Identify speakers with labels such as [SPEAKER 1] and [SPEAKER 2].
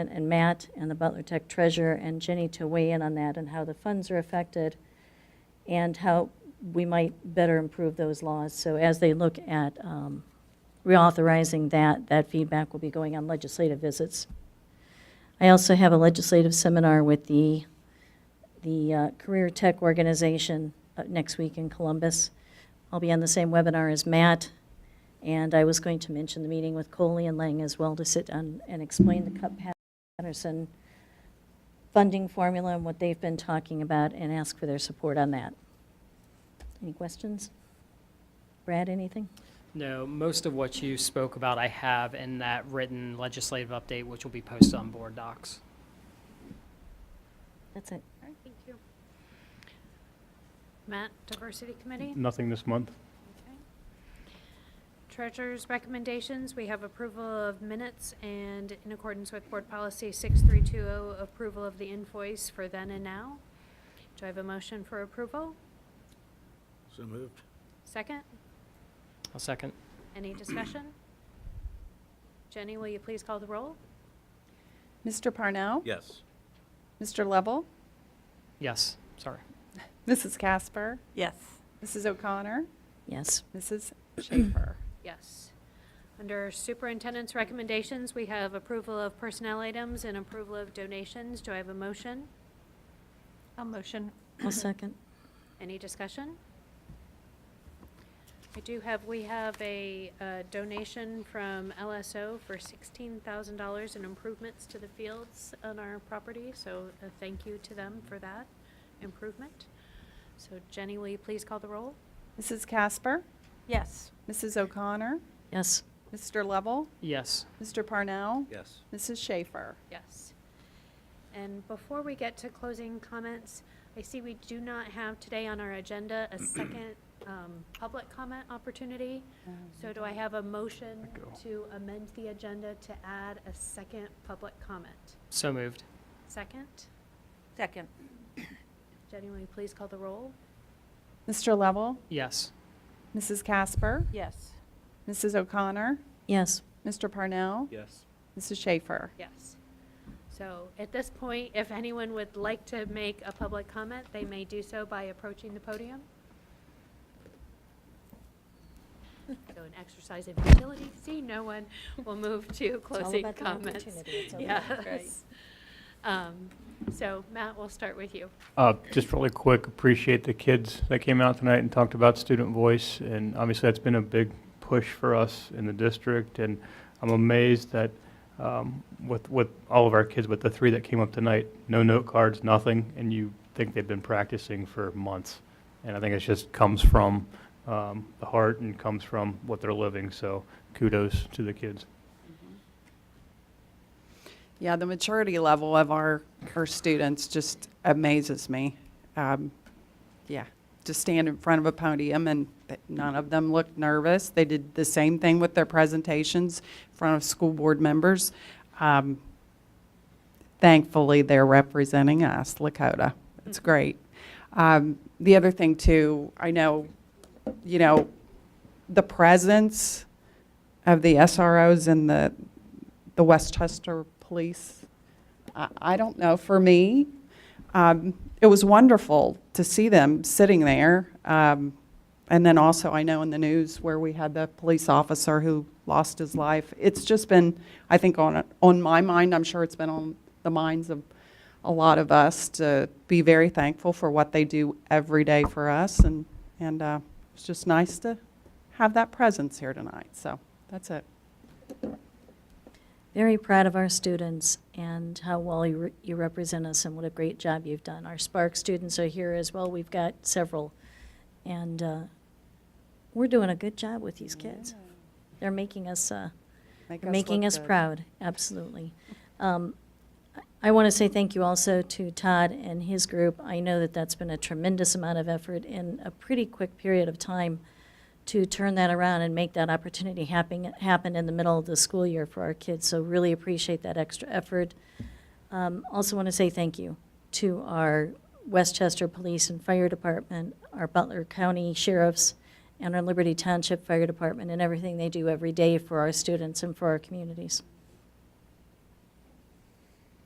[SPEAKER 1] and- and Matt and the Butler Tech treasurer and Jenny to weigh in on that and how the funds are affected and how we might better improve those laws. So as they look at um, reauthorizing that, that feedback will be going on legislative visits. I also have a legislative seminar with the, the uh, Career Tech Organization uh, next week in Columbus. I'll be on the same webinar as Matt, and I was going to mention the meeting with Coley and Lang as well to sit down and explain the Cup Patterson funding formula and what they've been talking about and ask for their support on that. Any questions? Brad, anything?
[SPEAKER 2] No, most of what you spoke about, I have in that written legislative update, which will be posted on board docs.
[SPEAKER 1] That's it.
[SPEAKER 3] All right, thank you. Matt, Diversity Committee?
[SPEAKER 4] Nothing this month.
[SPEAKER 3] Okay. Treasurer's recommendations, we have approval of minutes and in accordance with Board Policy 6320, oh, approval of the invoice for then and now. Do I have a motion for approval?
[SPEAKER 5] So moved.
[SPEAKER 3] Second?
[SPEAKER 2] I'll second.
[SPEAKER 3] Any discussion? Jenny, will you please call the roll?
[SPEAKER 6] Mr. Parnell?
[SPEAKER 5] Yes.
[SPEAKER 6] Mr. Lovell?
[SPEAKER 2] Yes, sorry.
[SPEAKER 6] Mrs. Casper?
[SPEAKER 7] Yes.
[SPEAKER 6] Mrs. O'Connor?
[SPEAKER 1] Yes.
[SPEAKER 6] Mrs. Schaefer?
[SPEAKER 3] Yes. Under Superintendent's recommendations, we have approval of personnel items and approval of donations. Do I have a motion?
[SPEAKER 7] I'll motion.
[SPEAKER 1] I'll second.
[SPEAKER 3] Any discussion? I do have, we have a uh, donation from LSO for $16,000 in improvements to the fields on our property, so a thank you to them for that improvement. So Jenny, will you please call the roll?
[SPEAKER 6] Mrs. Casper?
[SPEAKER 7] Yes.
[SPEAKER 6] Mrs. O'Connor?
[SPEAKER 1] Yes.
[SPEAKER 6] Mr. Lovell?
[SPEAKER 2] Yes,
[SPEAKER 6] Mr. Parnell?
[SPEAKER 5] Yes.
[SPEAKER 6] Mrs. Schaefer?
[SPEAKER 3] Yes. And before we get to closing comments, I see we do not have today on our agenda a second um, public comment opportunity. So do I have a motion to amend the agenda to add a second public comment?
[SPEAKER 2] so moved.
[SPEAKER 3] Second?
[SPEAKER 7] Second.
[SPEAKER 3] Jenny, will you please call the roll?
[SPEAKER 6] Mr. Lovell?
[SPEAKER 2] Yes,
[SPEAKER 6] Mrs. Casper?
[SPEAKER 7] Yes.
[SPEAKER 6] Mrs. O'Connor?
[SPEAKER 1] Yes.
[SPEAKER 6] Mr. Parnell?
[SPEAKER 5] Yes.
[SPEAKER 6] Mrs. Schaefer?
[SPEAKER 3] Yes. So at this point, if anyone would like to make a public comment, they may do so by approaching the podium. So an exercise in futility, see no one, will move to
[SPEAKER 1] all
[SPEAKER 3] closing
[SPEAKER 1] about the
[SPEAKER 3] comments.
[SPEAKER 1] opportunity. It's all about the
[SPEAKER 3] Yes. Um, So Matt, we'll start with you.
[SPEAKER 4] Uh, Just really quick, appreciate the kids that came out tonight and talked about student voice, and obviously that's been a big push for us in the district, and I'm amazed that um, with, with all of our kids, but the three that came up tonight, no note cards, nothing, and you think they've been practicing for months. And I think it just comes from um, the heart and comes from what they're living, so kudos to the kids.
[SPEAKER 6] Yeah, the maturity level of our, our students just amazes me. Um, yeah, to stand in front of a podium and th- none of them looked nervous. They did the same thing with their presentations in front of school board members. Um, thankfully, they're representing us, Lakota. It's great. Um, the other thing too, I know, you know, the presence of the SROs and the, the Westchester Police. I, I don't know, for me, um, it was wonderful to see them sitting there. Um, and then also, I know in the news where we had the police officer who lost his life. It's just been, I think, on, on my mind, I'm sure it's been on the minds of a lot of us to be very thankful for what they do every day for us. And, and uh, it's just nice to have that presence here tonight. So that's it.
[SPEAKER 1] Very proud of our students and how well you, re- you represent us and what a great job you've done. Our Spark students are here as well. We've got several. And uh, we're doing a good job with these kids. They're making us, uh,
[SPEAKER 6] Make
[SPEAKER 1] making
[SPEAKER 6] look
[SPEAKER 1] us
[SPEAKER 6] good.
[SPEAKER 1] proud, absolutely. Um, I want to say thank you also to Todd and his group. I know that that's been a tremendous amount of effort in a pretty quick period of time to turn that around and make that opportunity happen, happen in the middle of the school year for our kids. So really appreciate that extra effort. Um, Also want to say thank you to our Westchester Police and Fire Department, our Butler County Sheriffs, and our Liberty Township Fire Department, and everything they do every day for our students and for our communities.